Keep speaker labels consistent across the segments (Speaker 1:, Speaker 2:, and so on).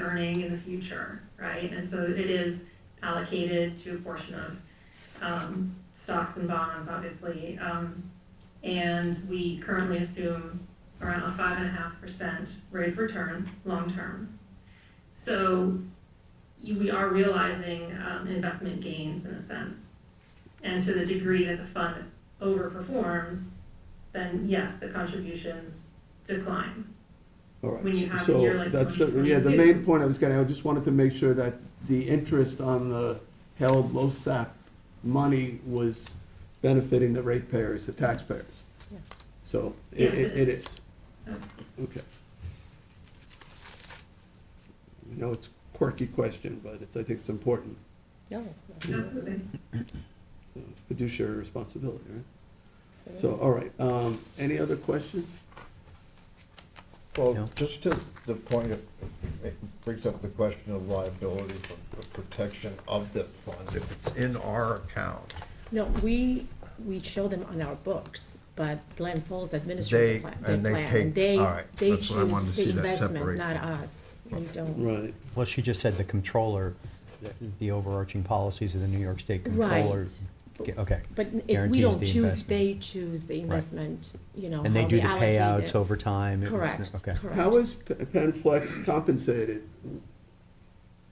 Speaker 1: earning in the future, right? And so it is allocated to a portion of um, stocks and bonds, obviously. Um, And we currently assume around a five and a half percent rate of return, long-term. So you- we are realizing um, investment gains in a sense. And to the degree that the fund overperforms, then yes, the contributions decline.
Speaker 2: All right.
Speaker 1: when you have a
Speaker 2: So
Speaker 1: year like
Speaker 2: that's the Yeah, the
Speaker 1: 2022.
Speaker 2: main point I was getting, I just wanted to make sure that the interest on the held LoSAP money was benefiting the ratepayers, the taxpayers.
Speaker 3: Yeah.
Speaker 2: So i- i-
Speaker 1: Yes, it
Speaker 2: it
Speaker 1: is.
Speaker 2: is. Okay. I know it's a quirky question, but it's, I think it's important.
Speaker 3: No.
Speaker 1: Absolutely.
Speaker 2: So Fiduciary responsibility, right?
Speaker 3: it
Speaker 2: So,
Speaker 3: is.
Speaker 2: all right, um, any other questions?
Speaker 4: Well, just to the point, of- it brings up the question of liability for the protection of the fund. If it's in our account,
Speaker 3: No, we, we show them on our books, but Glen Falls
Speaker 4: They-
Speaker 3: administers the pla- the
Speaker 4: and they
Speaker 3: plan.
Speaker 4: take-
Speaker 3: They-
Speaker 4: all right,
Speaker 3: They
Speaker 4: that's what I wanted
Speaker 3: choose
Speaker 4: to
Speaker 3: the
Speaker 4: see, that
Speaker 3: investment,
Speaker 4: separation.
Speaker 3: not us. We don't.
Speaker 2: Right,
Speaker 5: Well, she just said the controller, the- the overarching policies of the New York State controller.
Speaker 3: Right.
Speaker 5: Ge- Okay.
Speaker 3: But n- it- we
Speaker 5: guarantees
Speaker 3: don't
Speaker 5: the
Speaker 3: choose,
Speaker 5: investment.
Speaker 3: they choose the investment, you know,
Speaker 5: And they
Speaker 3: how
Speaker 5: do the
Speaker 3: allocate
Speaker 5: payouts
Speaker 3: it.
Speaker 5: over time. It was-
Speaker 3: Correct,
Speaker 5: Okay.
Speaker 2: How
Speaker 3: correct.
Speaker 2: is P- PenFlex compensated?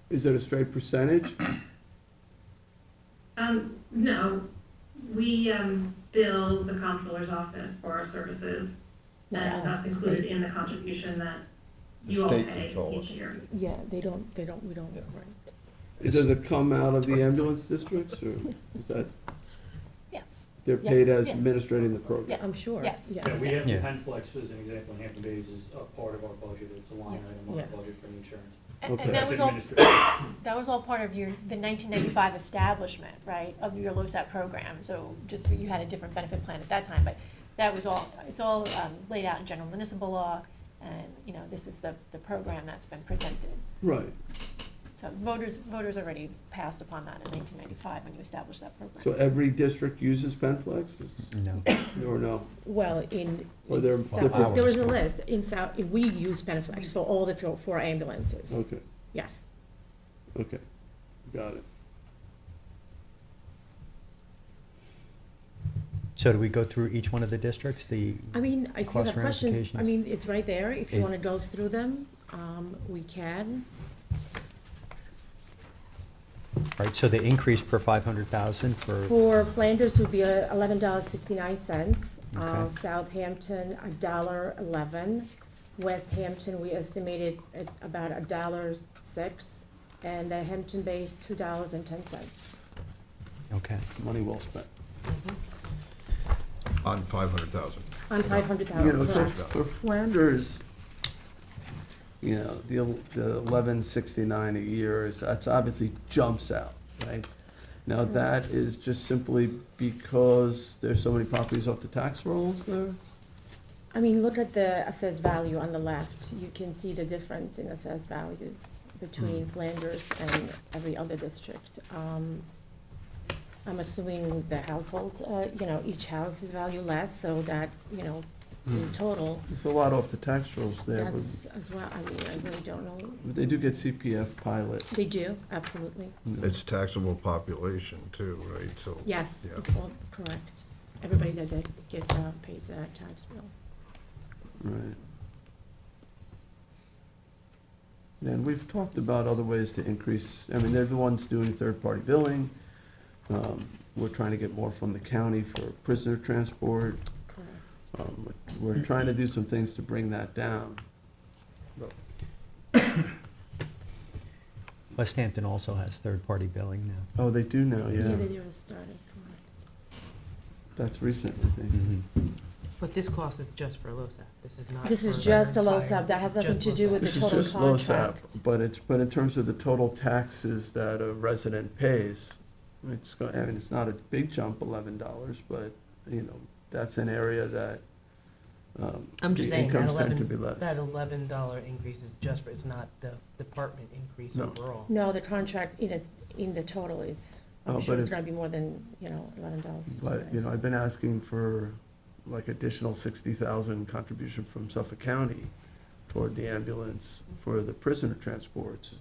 Speaker 2: Is it a straight percentage?
Speaker 1: Um, no, we, um, bill the comptroller's office for our services,
Speaker 3: Not
Speaker 1: and that's
Speaker 3: us.
Speaker 1: included in the contribution that
Speaker 4: The
Speaker 1: you all
Speaker 4: state
Speaker 1: pay
Speaker 4: controller.
Speaker 1: each year.
Speaker 3: Yeah, they don't, they don't, we don't,
Speaker 4: Yeah.
Speaker 3: right.
Speaker 2: Does it come out of the ambulance districts, or is that,
Speaker 6: Yes.
Speaker 2: they're
Speaker 3: Yeah,
Speaker 2: paid as
Speaker 6: yes.
Speaker 2: administrating the program?
Speaker 6: Yes.
Speaker 3: I'm sure.
Speaker 6: Yes.
Speaker 7: Yeah, we have the
Speaker 5: Yeah.
Speaker 7: pen flex as an example in Hampton Bays is a part of our budget, it's a line item on our
Speaker 3: Yeah.
Speaker 7: budget for the insurance.
Speaker 6: And
Speaker 2: Okay.
Speaker 6: and that
Speaker 7: That's
Speaker 6: was all,
Speaker 7: administrative.
Speaker 6: that was all part of your, the nineteen ninety-five establishment, right, of your LoSAP program, so just, you had a different benefit plan at that time, but that was all, it's all, um, laid out in general municipal law, and, you know, this is the, the program that's been presented.
Speaker 2: Right,
Speaker 6: So voters, voters already passed upon that in nineteen ninety-five when you established that
Speaker 2: so
Speaker 6: program.
Speaker 2: every district uses PenFlex, It's-
Speaker 5: No.
Speaker 2: or no?
Speaker 3: Well, in.
Speaker 2: Or they're
Speaker 3: in South-
Speaker 2: different-
Speaker 3: There was a list, in South, we use Beneflex for all the four- four ambulances,
Speaker 2: Okay,
Speaker 3: yes.
Speaker 2: okay, got it.
Speaker 5: So do we go through each one of the districts? The,
Speaker 3: I mean, if you
Speaker 5: Cost
Speaker 3: have questions, I
Speaker 5: ramifications.
Speaker 3: mean, it's right there, if you
Speaker 5: It-
Speaker 3: wanna go through them, um, we can.
Speaker 5: right, so the increase per 500,000 for,
Speaker 3: For Flanders would be uh, eleven dollars sixty-nine cents, uh,
Speaker 5: Okay.
Speaker 3: Southampton, a dollar eleven. West Hampton, we estimated at about a dollar six, and uh, Hampton Bay's two dollars and ten cents.
Speaker 5: okay.
Speaker 2: Money well spent.
Speaker 4: on five hundred thousand.
Speaker 3: On five hundred
Speaker 2: You know,
Speaker 3: thousand,
Speaker 2: so
Speaker 3: correct,
Speaker 2: for Flanders, you know, the, el- the eleven sixty-nine a year is, that's obviously jumps out, right? Now, that is just simply because there's so many properties off the tax rolls there?
Speaker 3: I mean, look at the assessed value on the left, you can see the difference in assessed values between Flanders and every other district. Um, I'm assuming the household, uh, you know, each house is valued less, so that, you know, in total,
Speaker 2: There's a lot off the tax rolls there, but
Speaker 3: that's as well, I mean, I really don't know.
Speaker 2: they do get CPF pilot.
Speaker 3: They do, absolutely,
Speaker 4: It's taxable population too, right, so.
Speaker 3: yes,
Speaker 4: Yeah.
Speaker 3: it's all correct. Everybody that that gets, uh, pays that tax bill.
Speaker 2: Right. And we've talked about other ways to increase, I mean, they're the ones doing third-party billing. Um, We're trying to get more from the county for prisoner transport.
Speaker 3: Correct.
Speaker 2: Um, We're trying to do some things to bring that down.
Speaker 5: West Hampton also has third-party billing now.
Speaker 2: Oh, they do now,
Speaker 3: Yeah,
Speaker 2: yeah.
Speaker 3: they were started, correct.
Speaker 2: That's recent, I think.
Speaker 5: Mhm.
Speaker 8: But this cost is just for LoSAP, this is not.
Speaker 3: This is
Speaker 8: for the
Speaker 3: just a
Speaker 8: entire-
Speaker 3: LoSAP. That has
Speaker 8: this is
Speaker 3: nothing
Speaker 8: just
Speaker 3: to do
Speaker 8: LoSAP.
Speaker 3: with the
Speaker 2: This is
Speaker 3: total
Speaker 2: just LoSAP,
Speaker 3: contract.
Speaker 2: but it's, but in terms of the total taxes that a resident pays, it's, go- I mean, it's not a big jump, eleven dollars, but, you know, that's an area that, um,
Speaker 8: I'm just
Speaker 2: the
Speaker 8: saying, that
Speaker 2: incomes tend to be
Speaker 8: eleven,
Speaker 2: less.
Speaker 8: that eleven dollar increase is just for, it's not the department increase
Speaker 2: No.
Speaker 8: overall.
Speaker 3: No, the contract in it, in the total is,
Speaker 2: Oh,
Speaker 3: I'm sure
Speaker 2: but
Speaker 3: it's
Speaker 2: if-
Speaker 3: gonna be more than, you know, eleven dollars.
Speaker 2: But, you know, I've been asking for like additional sixty thousand contribution from Suffolk County toward the ambulance for the prisoner transports